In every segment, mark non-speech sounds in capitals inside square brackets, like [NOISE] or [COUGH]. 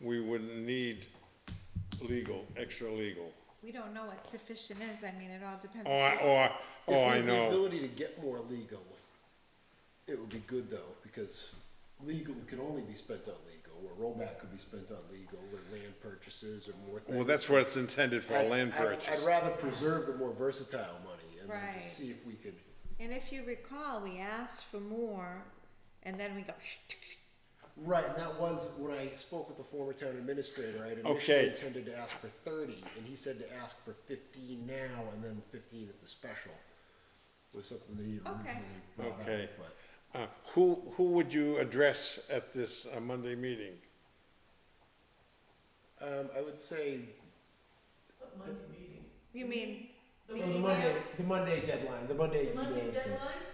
we wouldn't need legal, extra legal. We don't know what sufficient is, I mean, it all depends. Or, on- or, or If we Oh, I had The know, ability to get more legal, it would be good though, because legal can only be spent on legal, or rollback could be spent on legal, or land purchases, or more things. well, that's what it's intended for, a I'd- land I'd- purchase. I'd rather preserve the more versatile money and then Right. see if we could, And if you recall, we asked for more, and then we go, [LAUGHS] right, and that was, when I spoke with the former town administrator, I had Okay. initially intended to ask for thirty, and he said to ask for fifteen now and then fifteen at the special. Was something that he had Okay. originally brought up, Okay. but. Uh, who, who would you address at this uh, Monday meeting? Um, I would say. you mean, the the email? Monday, the Monday deadline, the Monday Monday email is the. deadline,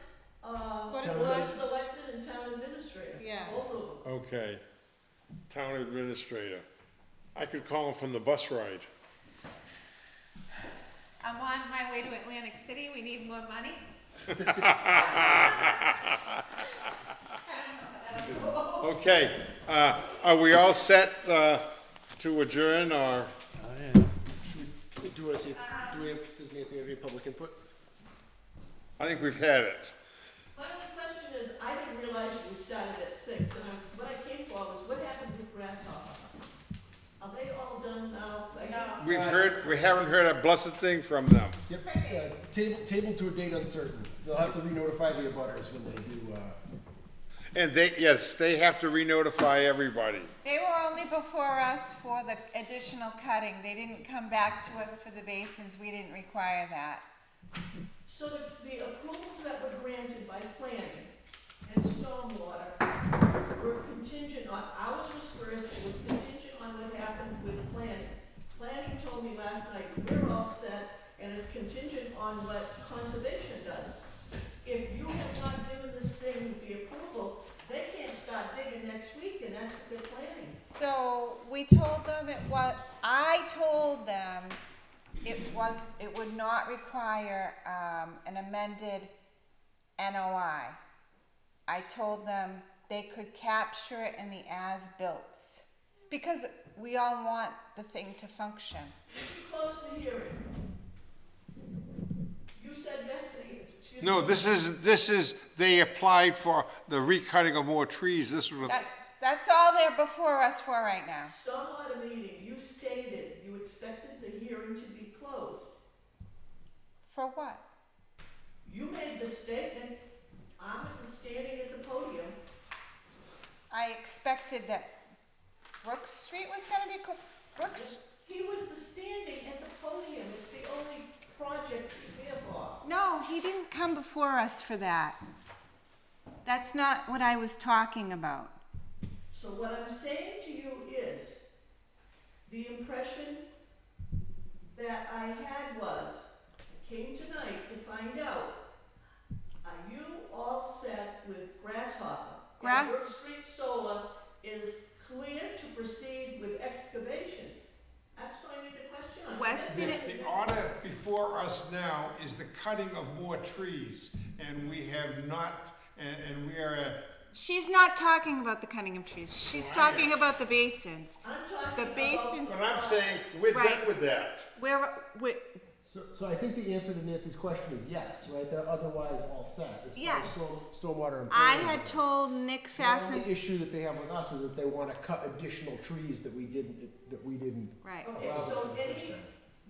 uh, What is Board of this? Selectmen and Town Administrator. Yeah. Both of them. Okay, town administrator. I could call him from the bus ride. I'm on my way to Atlantic City, we need more money. Okay, uh, are we all set, uh, to adjourn or? Should we, do you wanna see, if- do we have, does Nancy have any public input? I think we've had it. My only question is, I didn't realize you started at six, and I, what I came for was, what happened to Grasshopper? Are they all done now? Like, No. Uh, We've heard, we haven't heard a blessed thing from them. Yep, uh, table, table to a date uncertain, they'll have to re-notify the abutters when they do, uh, And they, yes, they have to re-notify everybody. They were only before us for the additional cutting, they didn't come back to us for the basins, we didn't require that. So the, the approvals that were granted by planning and stormwater were contingent on, ours was first, it was contingent on what happened with planning. Planning told me last night, we're all set, and it's contingent on what conservation does. If you have not given this thing the approval, they can't start digging next week, and that's what they're planning. So we told them it was, I told them it was, it would not require, um, an amended NOI. I told them they could capture it in the as-built, because we all want the thing to function. Close the hearing. You said yesterday, excuse me. No, this is, this is, they applied for the recutting of more trees, this was, That, that's all they're before us for right now. Stormwater meeting, you stated you expected the hearing to be closed. For what? You made the statement, I'm standing at the podium, I expected that Brook Street was gonna be, clo- Brooks, he was the standing at the podium, it's the only project he's here for. No, he didn't come before us for that. That's not what I was talking about. So what I'm saying to you is, the impression that I had was, I came tonight to find out, are you all set with Grasshopper? Grass- And Brook Street Solar is clear to proceed with excavation? That's what I need to question on. Wes did it- The order before us now is the cutting of more trees, and we have not, and, and we are at, She's not talking about the cutting of trees. She's talking about the basins. I'm talking The about. basins, but I'm saying, we're done Right. with that. where, where, so, so I think the answer to Nancy's question is yes, right, they're otherwise all set. as far as Yes. storm- Stormwater and. I planning had goes. told Nick The only Fasten, issue that they have with us is that they wanna cut additional trees that we didn't, that we didn't right. Okay, allow them for so the first any, time.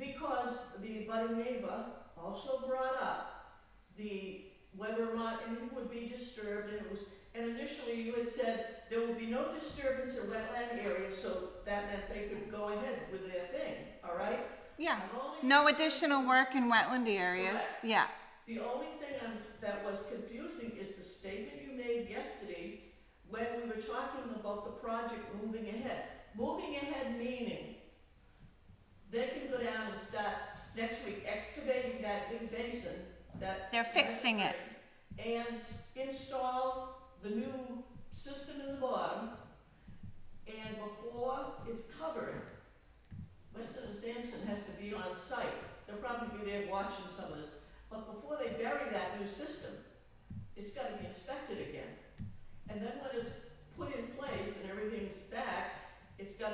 because the budding neighbor also brought up the, whether or not anything would be disturbed, and it was, and initially you had said, there will be no disturbance in wetland areas, so that meant they could go ahead with their thing, all right? Yeah. I'm only- No additional work in wetland areas. Yeah. The only thing I'm, that was confusing is the statement you made yesterday when we were talking about the project moving ahead. Moving ahead meaning they can go down and start next week excavating that big basin that. They're fixing it. And s- install the new system in the bottom. And before it's covered, Weston and Sampson has to be on site. They'll probably be there watching some of this. But before they bury that new system, it's gotta be inspected again. And then when it's put in place and everything's back, it's gotta